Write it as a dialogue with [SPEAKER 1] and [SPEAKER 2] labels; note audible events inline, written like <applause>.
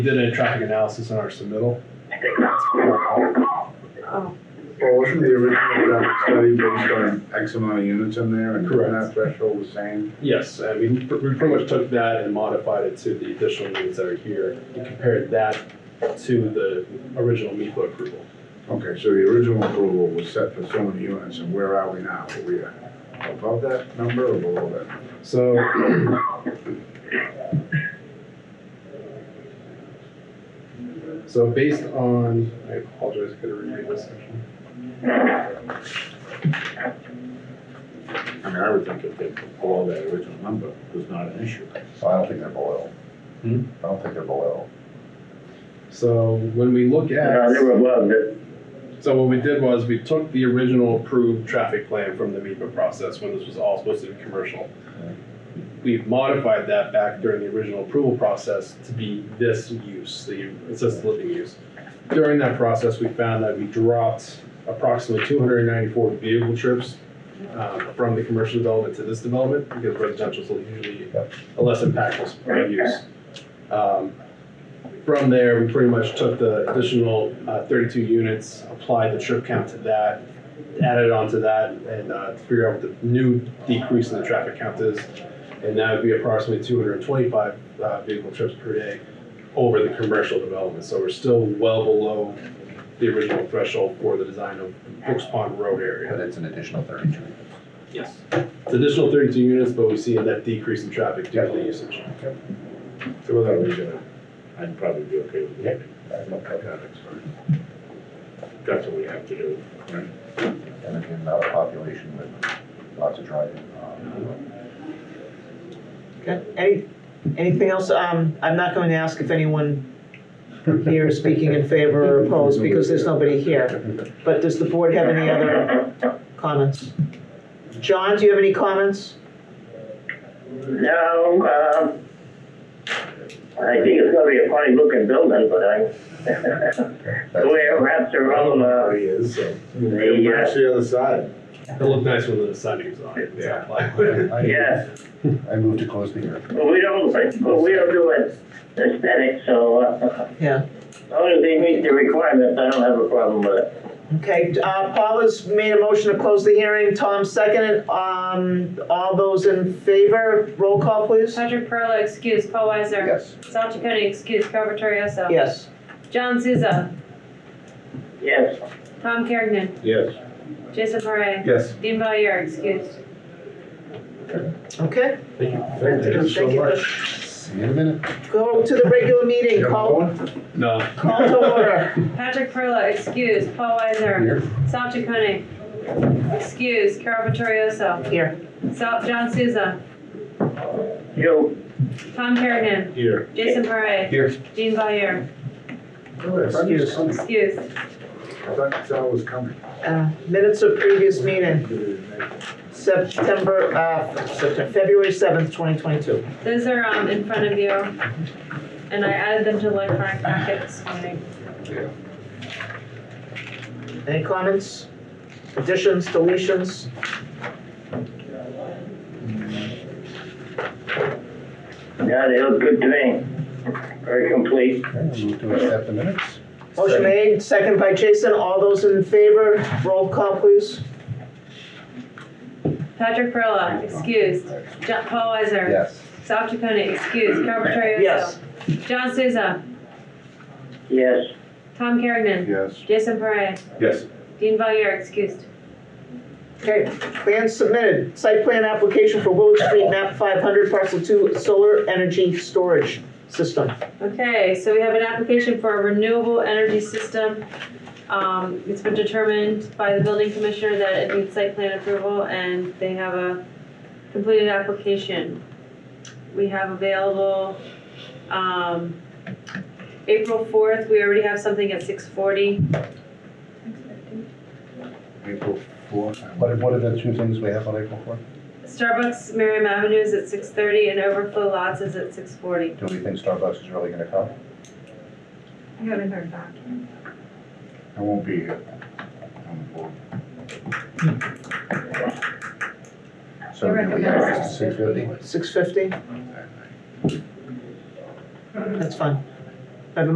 [SPEAKER 1] We did a traffic analysis on our submittal.
[SPEAKER 2] Oh.
[SPEAKER 3] Well, wasn't the original traffic study based on X amount of units in there and
[SPEAKER 1] Correct.
[SPEAKER 3] that threshold was same?
[SPEAKER 1] Yes, I mean, pr- we pretty much took that and modified it to the additional units that are here and compared that to the original MIPA approval.
[SPEAKER 3] Okay, so the original approval was set for so many units and where are we now? Are we above that number or below that?
[SPEAKER 1] So. <clears throat> So based on, I apologize, I gotta reread this section.
[SPEAKER 3] I mean, I would think if they're below that original number, it was not an issue.
[SPEAKER 4] So I don't think they're below.
[SPEAKER 1] Hmm?
[SPEAKER 4] I don't think they're below.
[SPEAKER 1] So when we look at.
[SPEAKER 5] No, they were above it.
[SPEAKER 1] So what we did was we took the original approved traffic plan from the MEPA process when this was all supposed to be commercial. We've modified that back during the original approval process to be this use, the assisted living use. During that process, we found that we dropped approximately two hundred and ninety-four vehicle trips uh, from the commercial development to this development because residential is usually a less impactful use. Um, from there, we pretty much took the additional uh, 32 units, applied the trip count to that, added on to that, and uh, to figure out what the new decrease in the traffic count is. And that would be approximately 225 uh, vehicle trips per day over the commercial development. So we're still well below the original threshold for the design of Brooks Pond Road
[SPEAKER 4] But
[SPEAKER 1] area.
[SPEAKER 4] it's an additional thirty-two.
[SPEAKER 1] Yes. It's additional 32 units, but we see a net decrease in traffic due to the usage.
[SPEAKER 3] Throw that away, Jim. I'd probably be okay with it. That's fine. That's what we have to do.
[SPEAKER 4] And again, not a population with lots of
[SPEAKER 3] <laughs>
[SPEAKER 4] driving. um,
[SPEAKER 6] Okay, Any, anything else? Um, I'm not going to ask if anyone here is speaking in favor or opposed, because there's nobody here. But does the board have any other comments? John, do you have any comments?
[SPEAKER 5] No, um, I think it's gonna be a funny looking building, but I, <laughs> the way it wraps around, uh,
[SPEAKER 3] He is, so.
[SPEAKER 5] Hey, uh,
[SPEAKER 3] That's the other side.
[SPEAKER 1] It looked nice when the siding was on. it.
[SPEAKER 3] Yeah.
[SPEAKER 4] I-
[SPEAKER 5] yeah,
[SPEAKER 4] I move to close the hearing.
[SPEAKER 5] but we don't, but we don't do it aesthetic, so, uh,
[SPEAKER 6] Yeah,
[SPEAKER 5] as long as they meet the requirements, I don't have a problem with it.
[SPEAKER 6] okay, uh, Paula's made a motion to close the hearing, Tom seconded, um, all those in favor, roll call, please?
[SPEAKER 2] Patrick Perla excuse. Paul Weiser.
[SPEAKER 4] Yes.
[SPEAKER 2] Sal Chaconi, excuse. Robert Torioso.
[SPEAKER 6] Yes,
[SPEAKER 2] John Souza.
[SPEAKER 5] Yes,
[SPEAKER 2] Tom Kergnen.
[SPEAKER 3] Yes.
[SPEAKER 2] Jason Parre.
[SPEAKER 3] Yes.
[SPEAKER 2] Dean Valier, excuse.
[SPEAKER 6] okay,
[SPEAKER 1] Thank you.
[SPEAKER 3] Thank you so
[SPEAKER 6] Thank you.
[SPEAKER 3] much.
[SPEAKER 4] See you in a minute.
[SPEAKER 6] go to the regular meeting,
[SPEAKER 3] You have
[SPEAKER 6] call,
[SPEAKER 3] one?
[SPEAKER 1] No.
[SPEAKER 6] call to order.
[SPEAKER 2] Patrick Perla excuse. Paul Weiser. Sal Chaconi, excuse. Carol Torioso.
[SPEAKER 6] Here,
[SPEAKER 2] Sal, John Souza.
[SPEAKER 5] you,
[SPEAKER 2] Tom Kergnen.
[SPEAKER 1] Here.
[SPEAKER 2] Jason Parre.
[SPEAKER 1] Here.
[SPEAKER 2] Dean Valier,
[SPEAKER 3] Oh, Excuse. I
[SPEAKER 2] excuse.
[SPEAKER 3] thought Sal was coming.
[SPEAKER 6] uh, minutes of previous meeting. September, uh, September, February seventh, twenty twenty-two.
[SPEAKER 2] Those are, um, in front of you. And I added them to the electronic packet this morning.
[SPEAKER 6] Any comments, additions, deletions?
[SPEAKER 5] yeah, they look good to me. Very complete.
[SPEAKER 4] Okay, I move to accept the minutes.
[SPEAKER 6] Motion made, second by Jason, all those in favor, roll call please.
[SPEAKER 2] Patrick Perla excused. John, Paul Weiser.
[SPEAKER 4] Yes.
[SPEAKER 2] Sal Chaconi, excuse, Carol Vittorioso.
[SPEAKER 6] Yes.
[SPEAKER 2] John Souza,
[SPEAKER 5] Yes,
[SPEAKER 2] Tom Kergnen,
[SPEAKER 3] Yes.
[SPEAKER 2] Jason Parre,
[SPEAKER 3] Yes.
[SPEAKER 2] Dean Valier, excused.
[SPEAKER 6] Okay, plan submitted, site plan application for Willow Street, map five hundred, parcel two, solar energy storage system.
[SPEAKER 2] Okay, so we have an application for a renewable energy system. Um, it's been determined by the building commissioner that it needs site plan approval and they have a completed application. We have available, um, April fourth, we already have something at six forty.
[SPEAKER 3] April fourth.
[SPEAKER 4] What, what are the two things we have on April fourth?
[SPEAKER 2] Starbucks Merriam Avenue is at six thirty and overflow lots is at six forty.
[SPEAKER 4] Do we think Starbucks is really gonna come?
[SPEAKER 2] I haven't heard back.
[SPEAKER 3] I won't be here. on the board.
[SPEAKER 4] So do we have six fifty?
[SPEAKER 6] Six fifty? That's fine.